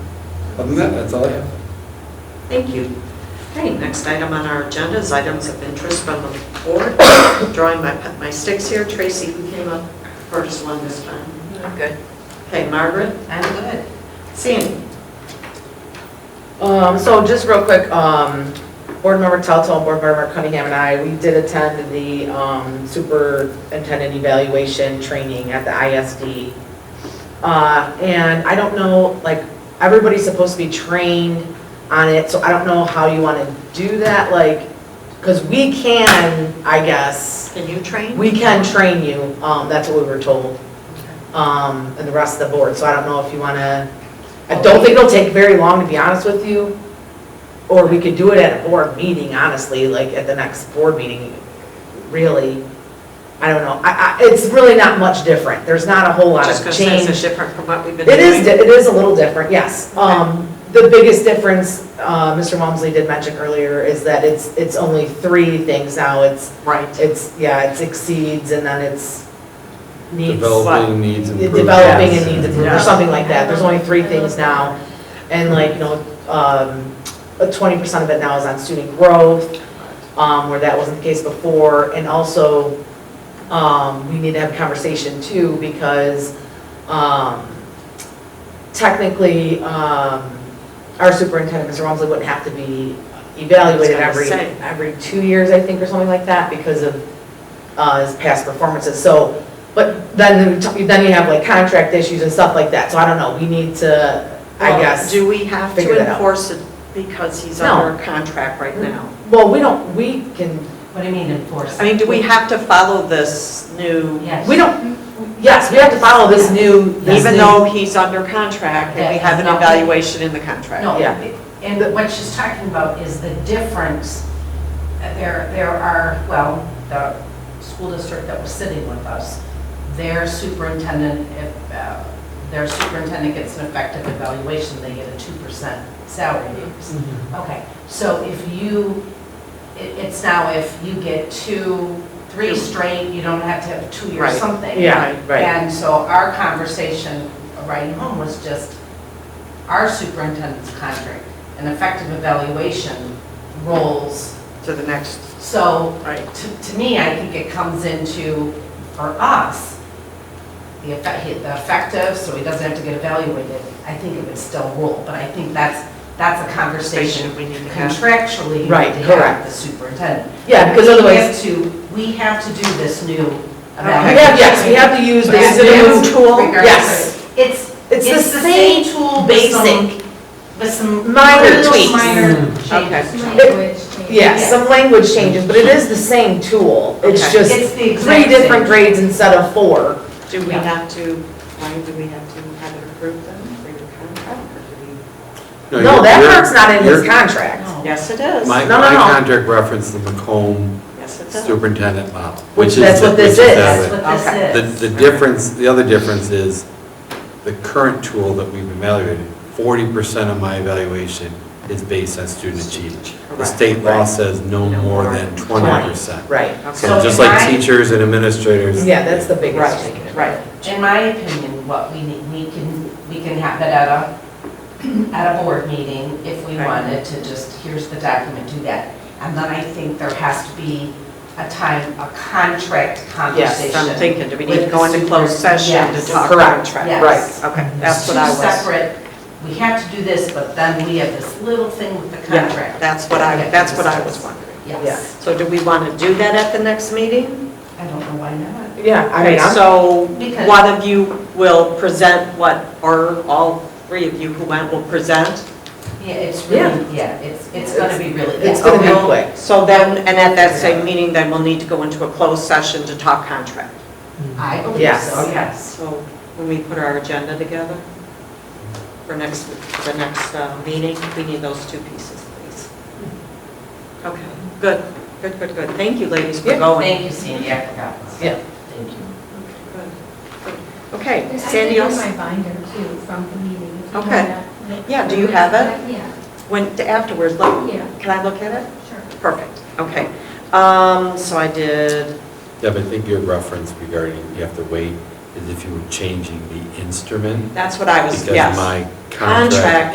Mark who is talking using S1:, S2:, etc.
S1: Other than that, that's all I have.
S2: Thank you. Okay, next item on our agenda is items of interest from the board. Drawing my, my sticks here, Tracy, who came up first one this time.
S3: I'm good.
S2: Okay, Margaret,
S3: I'm good.
S2: Sandy.
S3: Um, so just real quick, um, Board Member Telto, and Board Member Cunningham and I, we did attend the, um, superintendent evaluation training at the ISD. Uh, and I don't know, like, everybody's supposed to be trained on it, so I don't know how you want to do that, like, because we can, I guess,
S2: Can you train?
S3: We can train you, um, that's what we were told, um, and the rest of the board, so I don't know if you wanna, I don't think it'll take very long, to be honest with you, or we could do it at a board meeting, honestly, like at the next board meeting, really. I don't know, I, I, it's really not much different, there's not a whole lot
S2: Just
S3: of
S2: because it's
S3: change.
S2: is different from what we've been
S3: It
S2: doing.
S3: is, di- it is a little different, yes. Um, The biggest difference, uh, Mr. Walmsley did mention earlier, is that it's, it's only three things now, it's
S2: Right.
S3: it's, yeah, it exceeds and then it's needs.
S1: Developing needs improvement.
S3: Developing and needs improvement, or
S2: Yes.
S3: something like that. There's only three things now. And like, you know, um, twenty percent of it now is on student growth, um, where that wasn't the case before. And also, um, we need to have a conversation too, because, um, technically, um, our superintendent, Mr. Rumsley, wouldn't have to be evaluated
S2: I was
S3: every,
S2: gonna say.
S3: every two years, I think, or something like that, because of uh, his past performances. So, but then, you- then you have like contract issues and stuff like that, so I don't know, we need to, I
S2: Well,
S3: guess.
S2: Do we have
S3: figure
S2: to
S3: that out.
S2: enforce it because he's
S3: No. Mm-hmm.
S2: under contract right now?
S3: Well, we don't, we can,
S4: What do you mean enforce?
S2: I mean, do we have to follow this new,
S4: Yes.
S3: we don't, yes, we have to follow this new, this
S2: even
S3: new-
S2: though he's under contract and we have an
S4: Yes.
S2: evaluation in the contract?
S4: No,
S3: Yeah.
S4: and what she's talking about is the difference. There, there are, well, the school district that was sitting with us, their superintendent, if uh, their superintendent gets an effective evaluation, they get a 2% salary increase.
S2: Mm-hmm.
S4: Okay, so if you, it- it's now if you get two, three
S2: Two.
S4: straight, you don't have to have two or
S2: Right.
S4: something.
S3: Yeah, right,
S4: And so our conversation riding home was just our superintendent's contract and effective evaluation roles.
S2: To the next,
S4: So
S2: right.
S4: to, to me, I think it comes into, for us, the effect, the effective, so he doesn't have to get evaluated. I think it would still rule, but I think that's, that's a conversation
S2: we need to have.
S4: contractually you need to
S3: Right,
S4: have
S3: correct.
S4: with the superintendent.
S3: yeah, because
S4: We
S3: otherwise,
S4: have to, we have to do this new
S2: Okay.
S3: we
S4: evaluation.
S3: have, yes, we have to use this
S2: Is it a new
S3: new,
S2: tool?
S3: Yes.
S4: Regardless, it's,
S3: it's the same,
S4: tool,
S3: basic.
S4: With some
S3: Minor
S4: little
S3: tweaks. Mm.
S4: Minor
S2: Okay.
S4: changes.
S5: Language change.
S3: yeah, some language changes, but it is the same tool. It's
S2: Okay.
S3: just
S4: It's the
S3: three
S4: exact
S3: different
S4: same.
S3: grades instead of four.
S2: Do we
S4: Yeah.
S2: have to, why do we have to have it approved then for your contract? or do we-
S3: No, that
S1: you're-
S3: part's not in his
S1: you're-
S3: contract.
S2: Yes, it is.
S1: My,
S3: No, no,
S1: my
S3: no.
S1: contract referenced the Macomb
S2: Yes, it does.
S1: superintendent model, which
S3: Which-
S1: is.
S3: that's
S1: the-
S3: what this
S1: which that
S3: is.
S4: That's
S1: way.
S4: what
S1: The,
S4: this is.
S1: the difference, the other difference is the current tool that we've evaluated, forty percent of my evaluation is based on student achievement. The
S2: Correct.
S1: state law says no more than twenty percent.
S3: Right.
S1: So
S2: Okay.
S4: So
S1: just
S4: if
S1: like
S4: I-
S1: teachers and administrators.
S3: Yeah, that's the biggest thing.
S2: Right, right.
S4: In my opinion, what we need, we can, we can have it at a, at a board meeting if we
S2: Right.
S4: wanted to just, here's the document, do that. And then I think there has to be a time, a contract
S2: So I'm
S4: conversation.
S2: thinking, do we need to
S4: With
S2: go
S4: the
S2: into closed
S4: super-
S2: session to
S4: yes.
S2: talk
S3: Correct.
S2: contract?
S4: Yes.
S2: Okay, that's what I
S4: Two
S2: was.
S4: separate, we have to do this, but then we have this little thing with the
S2: Yeah,
S4: contract.
S2: that's what I, that's what I was wondering.
S4: Yes,
S2: So do we want to do that at the next meeting?
S4: I don't know why not.
S3: Yeah, I
S2: Okay,
S3: mean, I'm,
S2: so
S4: Because-
S2: one of you will present what, or all three of you who went will present?
S4: Yeah, it's
S3: Yeah.
S4: really, yeah, it's, it's gonna be really. Oh,
S3: it's
S4: yeah,
S3: gonna be
S4: okay.
S3: quick.
S2: So then, and at that same meeting, then we'll need to go into a closed session to talk contract.
S4: I believe so,
S3: Yes.
S4: yes.
S2: So when we put our agenda together for next, the next uh, meeting, we need those two pieces, please. Okay, good, good, good, good. Thank you, ladies, for
S3: Yeah,
S2: going.
S4: Thank you, Sandy, I forgot.
S3: Yeah.
S4: Thank you.
S2: Good, good. Okay,
S5: I
S2: Sandy,
S5: did have
S2: else-
S5: my binder too from the meeting. if you
S2: Okay.
S5: have that.
S2: Yeah, do you have it?
S5: Yeah,
S2: when, afterwards, look,
S5: yeah,
S2: can I look at it?
S5: sure.
S2: Perfect, okay. Um, so I did,
S1: Yeah, but I think your reference regarding you have to wait is if you were changing the instrument.
S2: that's what I was,
S1: Because
S2: yes.
S1: my contract